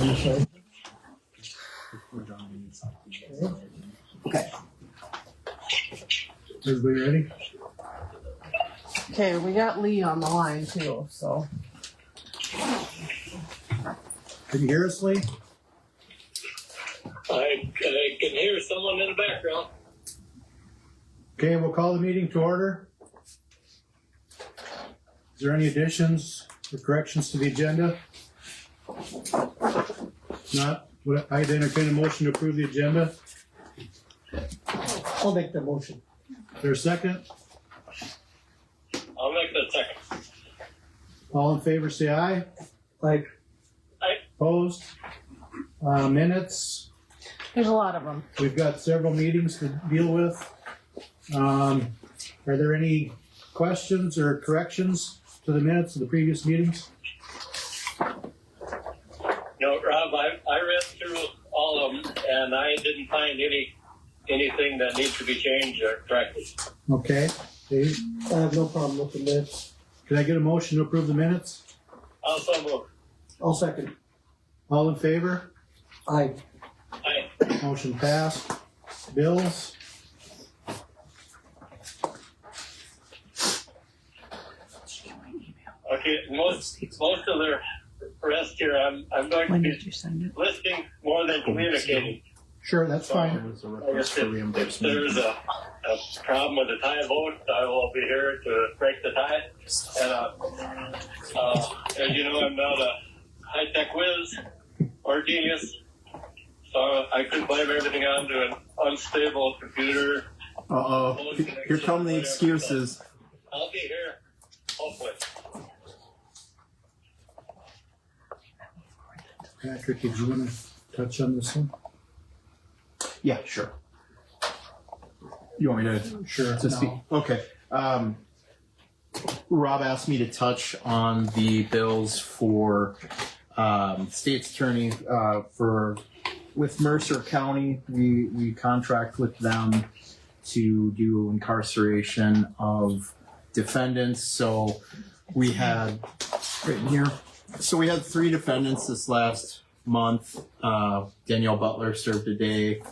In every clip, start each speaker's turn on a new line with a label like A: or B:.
A: initial.
B: Okay.
A: Everybody ready?
C: Okay, we got Lee on the line too, so.
A: Can you hear us, Lee?
D: I, I can hear someone in the background.
A: Okay, we'll call the meeting to order. Is there any additions or corrections to the agenda? If Not, would I entertain a motion to approve the agenda?
B: I'll make the motion.
A: Is there a second?
D: I'll make the second.
A: All in favor, say aye.
B: Aye.
D: Aye.
A: Opposed? Uh, minutes,
C: There's a lot of them.
A: we've got several meetings to deal with. Um, are there any questions or corrections to the minutes of the previous meetings?
D: No, Rob, I, I read through all of them and I didn't find any, anything that needs to be changed or corrected.
A: Okay, Dave,
B: I have no problem with the minutes.
A: can I get a motion to approve the minutes?
D: Also move.
B: I'll second.
A: All in favor?
B: Aye.
D: I,
A: Motion passed. Bills?
D: okay, most, most of the rest here, I'm, I'm going to
E: When
D: be
E: did you send it?
D: listening more than communicating.
A: Sure, that's fine.
F: was a
D: I guess if, if there's a, a problem with the tie vote, I will be here to break the tie. And, uh, uh, as you know, I'm not a high-tech whiz or genius, so I could blame everything onto an unstable computer.
F: Uh-oh. Here come the excuses.
D: I'll be here, hopefully.
A: Patrick, did you wanna touch on this one?
F: Yeah, sure. You want me to
A: Sure.
F: to speak?
A: No.
F: Okay. Um, Rob asked me to touch on the bills for um, state's attorney uh, for with Mercer County. We we contract with them to do incarceration of defendants. So we had right in here. So we had three defendants this last month. Uh, Danielle Butler served a day.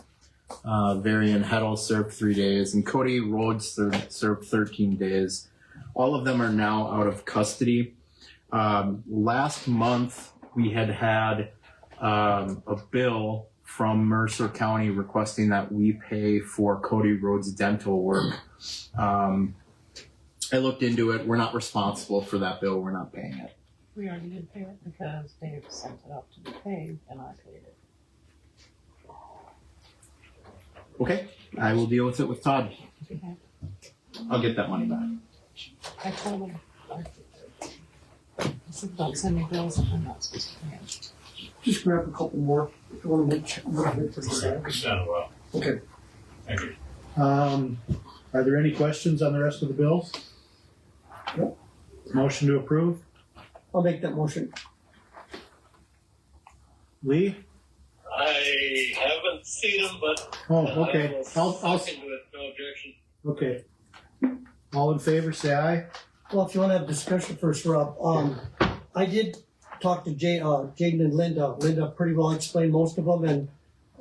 F: Uh, Varian Heddle served three days, and Cody Rhodes ser- served 13 days. All of them are now out of custody. Um, last month, we had had um, a bill from Mercer County requesting that we pay for Cody Rhodes' dental work. Um, I looked into it. We're not responsible for that bill. We're not paying it.
E: We already did pay it because Dave sent it up to be paid and I paid it.
F: Okay, I will deal with it with Todd.
E: Okay.
F: I'll get that money back.
E: I told him. I said, don't send me bills if I'm not supposed to pay them.
B: Just grab a couple more. I want to make sure. I'm gonna make this out. Okay.
A: Um, are there any questions on the rest of the bills?
B: Nope.
A: Motion to approve.
B: I'll make that motion.
A: Lee?
D: I haven't seen them, but
A: Oh,
D: Uh, I
A: okay.
D: will
A: I'll, I'll,
D: look into it, no objection.
A: okay. All in favor, say aye.
B: Well, if you want to have discussion first, Rob, um, I did talk to Jay, uh, Jaden and Linda. Linda pretty well explained most of them, and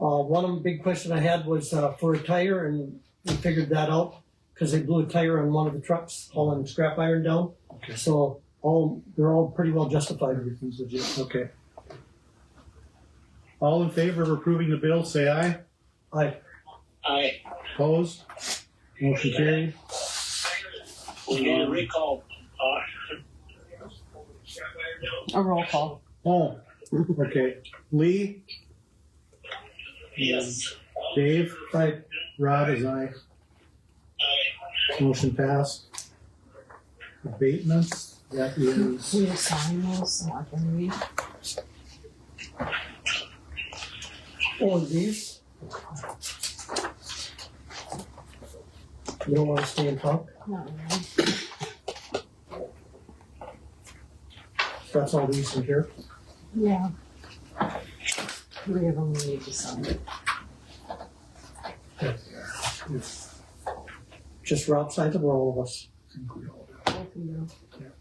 B: uh, one of them, big question I had was uh, for a tire, and we figured that out because they blew a tire on one of the trucks hauling scrap iron down.
A: Okay.
B: So all they're all pretty well justified.
A: Everything's legit, okay. All in favor of approving the bill, say aye.
B: I
D: I,
A: Opposed? Motion carried.
D: we need
A: Mm-hmm.
D: a recall. Uh,
C: A roll call.
A: Oh, okay. Lee,
D: yes.
A: Dave,
B: I
A: Rod is aye. Motion passed. Abatements, that is,
E: We will sign those so I can read.
B: all of these. You don't want to stay and talk.
E: Not really.
B: That's all these in here.
E: Yeah. Three of them we need to sign.
B: Just Rob signs them or all of us.
E: Both of them.
B: Yeah.